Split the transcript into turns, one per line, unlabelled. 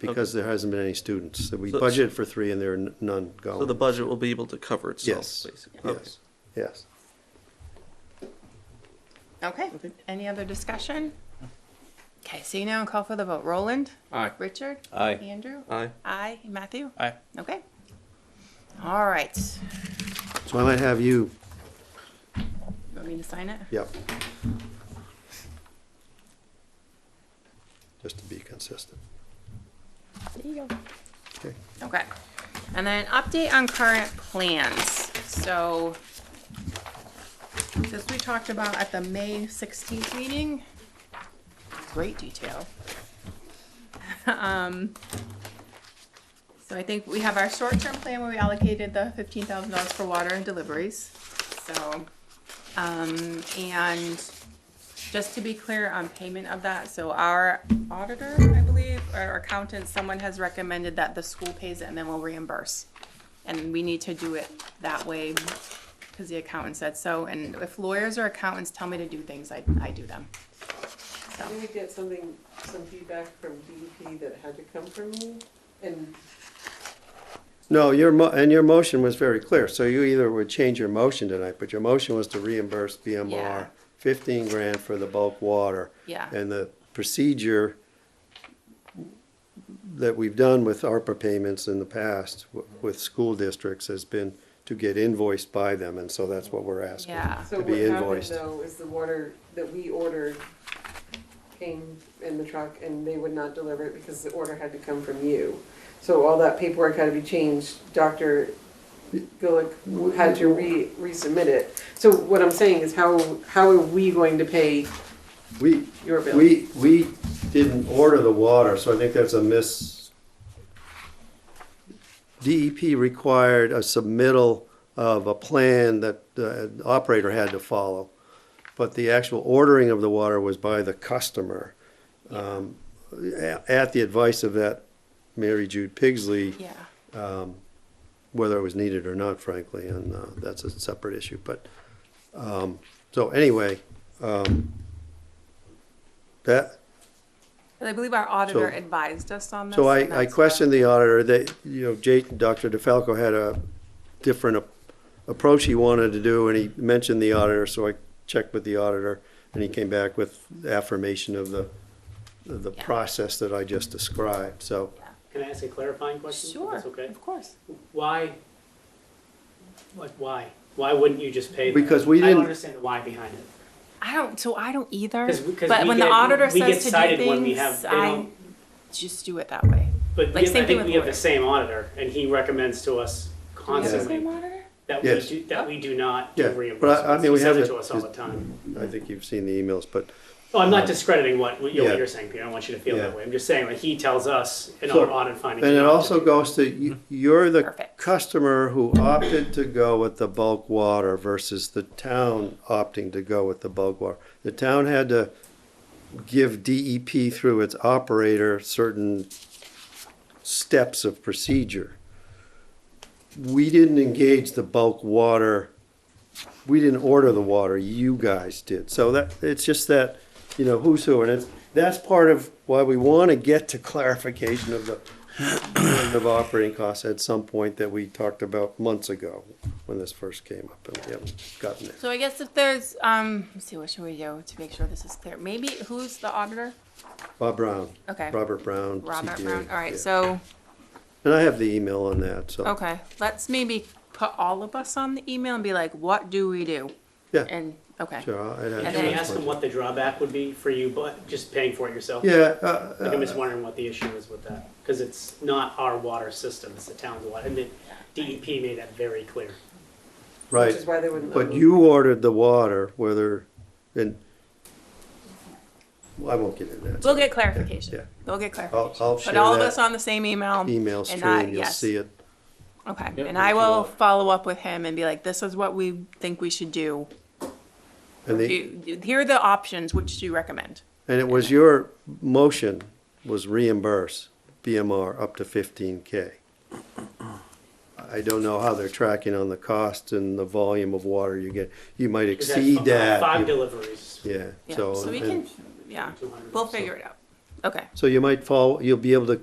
because there hasn't been any students. So We
So-
budgeted for three and there are n- none
So the
going.
budget will be able to cover itself,
Yes,
basically. Okay.
yes, yes.
Okay, any other discussion? Okay, so you now call for the vote. Roland?
Aye.
Richard?
Aye.
Andrew?
Aye.
Aye. Matthew?
Aye.
Okay. All right.
So I might have you,
You want me to sign it?
yep. Just to be consistent,
There you go.
okay?
Okay. And then update on current plans. So this we talked about at the May 16th meeting. Great detail. Um, so I think we have our short-term plan where we allocated the $15,000 for water and deliveries. So, um, and just to be clear on payment of that, so our auditor, I believe, or accountant, someone has recommended that the school pays it and then we'll reimburse. And we need to do it that way, because the accountant said so, and if lawyers or accountants tell me to do things, I, I do them.
Didn't we get something, some feedback from DEP that had to come from you? And
No, your mo, and your motion was very clear, so you either would change your motion tonight, but your motion was to reimburse
Yeah.
BMR fifteen grand for the bulk water.
Yeah.
And the procedure that we've done with ARPA payments in the past w- with school districts has been to get invoiced by them, and so that's what we're asking.
Yeah.
so
To be
what happened
invoiced.
though is the water that we ordered came in the truck and they would not deliver it because the order had to come from you. So all that paperwork had to be changed. Dr. Gulick had to re, resubmit it. So what I'm saying is how, how are we going to pay
We,
your bill?
we, we didn't order the water, so I think that's a miss. DEP required a submittal of a plan that the operator had to follow, but the actual ordering of the water was by the customer. um, a- At the advice of that Mary Jude Pigsley
Yeah,
um, whether it was needed or not, frankly, and uh, that's a separate issue. But, um, so anyway, um, that,
but I believe our auditor
So-
advised us on this.
so
and
I, I
that's
questioned the auditor, that, you know, Jake, Dr. DeFalco had a different ap- approach he wanted to do, and he mentioned the auditor, so I checked with the auditor, and he came back with affirmation of the, of the
Yeah.
process that I just described, so.
Can I ask a clarifying
what-
question? if
Sure,
that's okay.
of course.
Why, like, why? Why wouldn't you just pay? them?
Because we
I
didn't-
don't understand the why behind it.
I don't, so I don't either,
'Cause we- 'cause
but
we
when the
get-
auditor
we get
says to do
cited when we have-
things,
they
I
don't-
just do it that way.
But
Like,
we have-
same
I
thing
think
with
we have the
lawyers.
same auditor, and he recommends to us
Do we have the same
constantly
auditor?
that we
Yes.
do, that we do not
Yeah,
do
but I- I
reimbursements.
mean, we
He
have
says it
it-
to us all the time.
I think you've seen the emails, but
Oh, I'm not discrediting what, what you're
Yeah.
what you're saying, Peter. I don't want you to feel
Yeah.
that way. I'm just saying, like, he tells us in
So-
our audit findings.
And it
what to
also
do. Mm-hmm.
goes to, you- you're the
Perfect.
customer who opted to go with the bulk water versus the town opting to go with the bulk water. The town had to give DEP through its operator certain steps of procedure. We didn't engage the bulk water, we didn't order the water, you guys did. So that, it's just that, you know, who's who, and it's, that's part of why we wanna get to clarification of the burden of operating costs at some point that we talked about months ago when this first came up, and we haven't gotten it.
So I guess if there's, um, let's see, what should we do to make sure this is clear? Maybe, who's the auditor?
Bob Brown.
Okay.
Robert Brown.
Robert
CPA,
Brown, all right,
yeah.
so,
And I have the email on that, so.
okay, let's maybe put all of us on the email and be like, what do we do?
Yeah.
And, okay,
Sure, I'll- I'd have
And
Can we
then-
ask him what the drawback would be for you, but just paying for it yourself?
Yeah, uh,
Like, I'm just wondering what the issue is with that, because it's not our water system, it's the town's water, and the DEP made that very clear.
right.
Which is why they wouldn't. let
But
me.
you ordered the water, whether, and, well, I won't get into that.
we'll get clarification,
Yeah.
we'll get
I'll,
clarification.
I'll
Put
share
all of us
that
on the same email.
email
and not-
stream, you'll
yes.
see it.
Okay,
Yeah,
and I
we
will
should all-
follow up with him and be like, this is what we think we should do.
And the,
Do- Here are the options, which do you recommend?
and it was your motion was reimburse BMR up to fifteen K. I don't know how they're tracking on the cost and the volume of water you get. You might
Is that fi-
exceed that.
Five
You-
deliveries.
Yeah,
Yeah,
so.
so we
and-
can, yeah, we'll figure it out. Okay,
So you might fall, you'll be able to